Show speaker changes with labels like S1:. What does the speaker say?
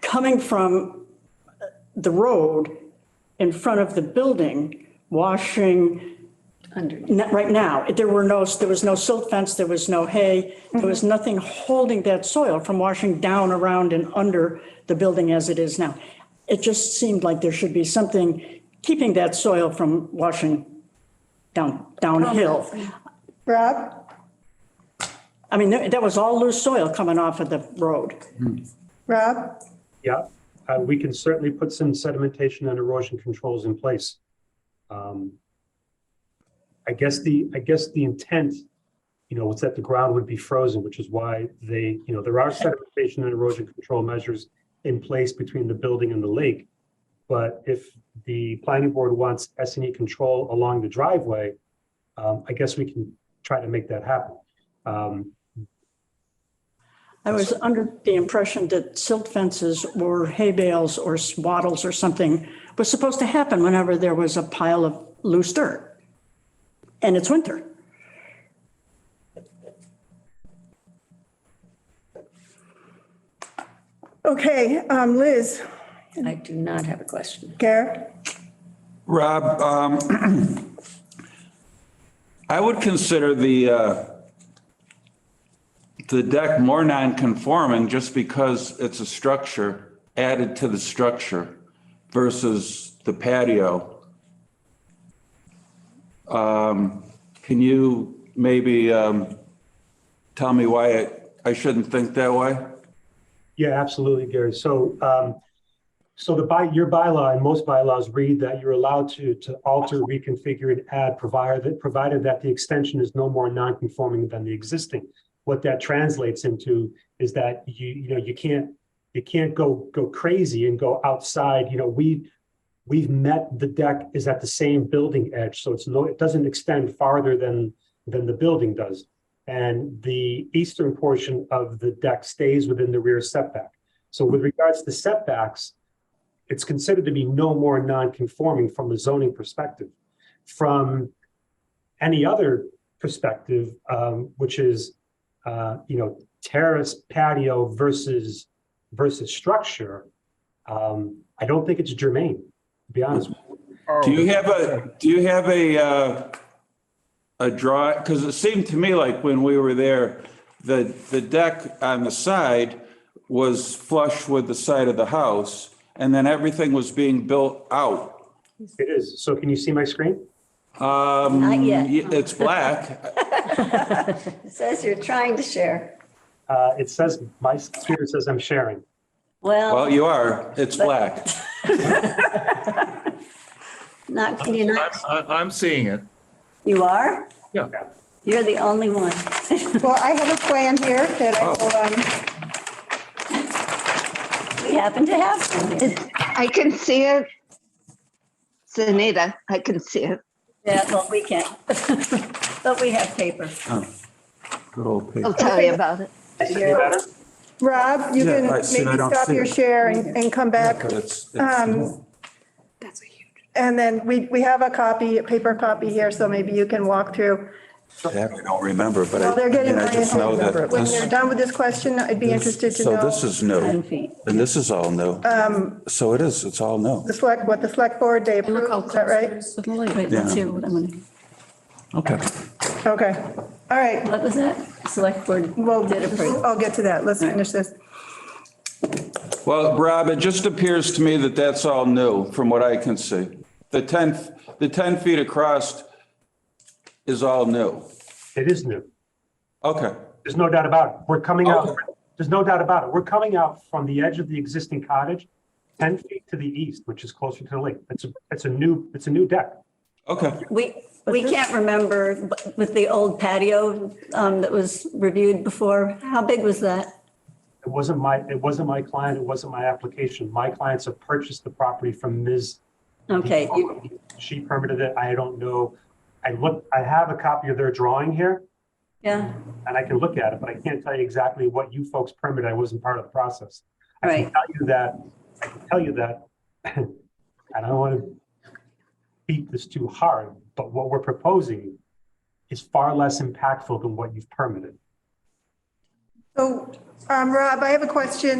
S1: coming from the road in front of the building, washing,
S2: Under.
S1: n- right now, there were no, there was no silt fence, there was no hay, there was nothing holding that soil from washing down around and under the building as it is now. It just seemed like there should be something keeping that soil from washing down, downhill.
S3: Rob,
S1: I mean, that that was all loose soil coming off of the road.
S3: Rob,
S4: Yeah, uh, we can certainly put some sedimentation and erosion controls in place. Um, I guess the, I guess the intent, you know, was that the ground would be frozen, which is why they, you know, there are sedimentation and erosion control measures in place between the building and the lake. But if the planning board wants S and E control along the driveway, um, I guess we can try to make that happen. Um,
S1: I was under the impression that silt fences or hay bales or swaddles or something was supposed to happen whenever there was a pile of loose dirt. And it's winter.
S3: okay, um, Liz,
S2: I do not have a question.
S3: Garrett,
S5: Rob, um, I would consider the, uh, the deck more non-conforming just because it's a structure added to the structure versus the patio. Um, Can you maybe um, tell me why I- I shouldn't think that way?
S4: Yeah, absolutely, Gary. So, um, so the by, your bylaw and most bylaws read that you're allowed to, to alter, reconfigure and add provided that, provided that the extension is no more non-conforming than the existing. What that translates into is that you, you know, you can't, you can't go, go crazy and go outside, you know, we, we've met, the deck is at the same building edge, so it's no, it doesn't extend farther than, than the building does and the eastern portion of the deck stays within the rear setback. So with regards to setbacks, it's considered to be no more non-conforming from a zoning perspective. From any other perspective, um, which is, uh, you know, terrace patio versus, versus structure, um, I don't think it's germane, to be honest. with you.
S5: Do you have a, do you have a, uh, a draw, because it seemed to me like when we were there, the, the deck on the side was flush with the side of the house, and then everything was being built out.
S4: It is. So can you see my screen?
S5: Um,
S2: Not yet.
S5: y- It's black.
S2: It says you're trying to share.
S4: Uh, It says, my computer says I'm sharing.
S3: Oh.
S5: Well,
S2: Well,
S5: you are, it's black.
S2: not, can you
S6: I'm,
S2: not?
S6: I- I'm seeing it.
S2: You are?
S6: Yeah.
S2: You're the only one.
S3: well, I have a plan here that I will, um,
S2: We happen to have one here.
S7: I can see it. It's Anita. I can see it.
S2: Yeah, well, we can't. But we have paper.
S5: Good old
S7: I'll
S5: pig.
S7: tell you about it.
S3: Rob, you
S5: Yeah,
S3: can
S5: I see, I
S3: maybe
S5: don't
S3: stop
S5: see
S3: your
S5: it.
S3: share and, and come back.
S5: It's- it's-
S3: Um, And then we, we have a copy, a paper copy here, so maybe you can walk through.
S5: I don't remember, but
S3: Well, They're
S5: I, I
S3: getting
S5: mean, I
S3: ready.
S5: just know that
S3: When
S5: this.
S3: they're done with this question, I'd be interested to
S5: So this
S3: know Um,
S2: 10
S5: is new,
S2: feet.
S5: and this is all new. So it is, it's all new.
S3: the select, what the select board, they
S8: Look how
S3: approved, is
S8: close
S3: that
S8: it
S3: right?
S8: is to the lake. Wait,
S5: let's
S8: let's
S5: Yeah.
S8: hear what I'm gonna.
S5: Okay.
S3: Okay, all right.
S2: What was that? Select board
S3: Well,
S2: did approve.
S3: I'll get to that. Let's finish this.
S5: Well, Rob, it just appears to me that that's all new from what I can see. The 10, f- the 10 feet across is all new.
S4: It is new.
S5: Okay.
S4: There's no doubt about it. We're coming out,
S5: Okay.
S4: there's no doubt about it. We're coming out from the edge of the existing cottage, ten feet to the east, which is closer to the lake. It's a, it's a new, it's a new deck.
S5: Okay.
S2: We, we can't remember but with the old patio um, that was reviewed before. How big was that?
S4: It wasn't my, it wasn't my client, it wasn't my application. My clients have purchased the property from Ms.
S2: Okay, you-
S4: She permitted it. I don't know. I look, I have a copy of their drawing here
S2: yeah,
S4: and I can look at it, but I can't tell you exactly what you folks permitted. I wasn't part of the process. I can
S2: Right.
S4: tell you that, I can tell you that, I don't want to beat this too hard, but what we're proposing is far less impactful than what you've permitted.
S3: So, um, Rob, I have a question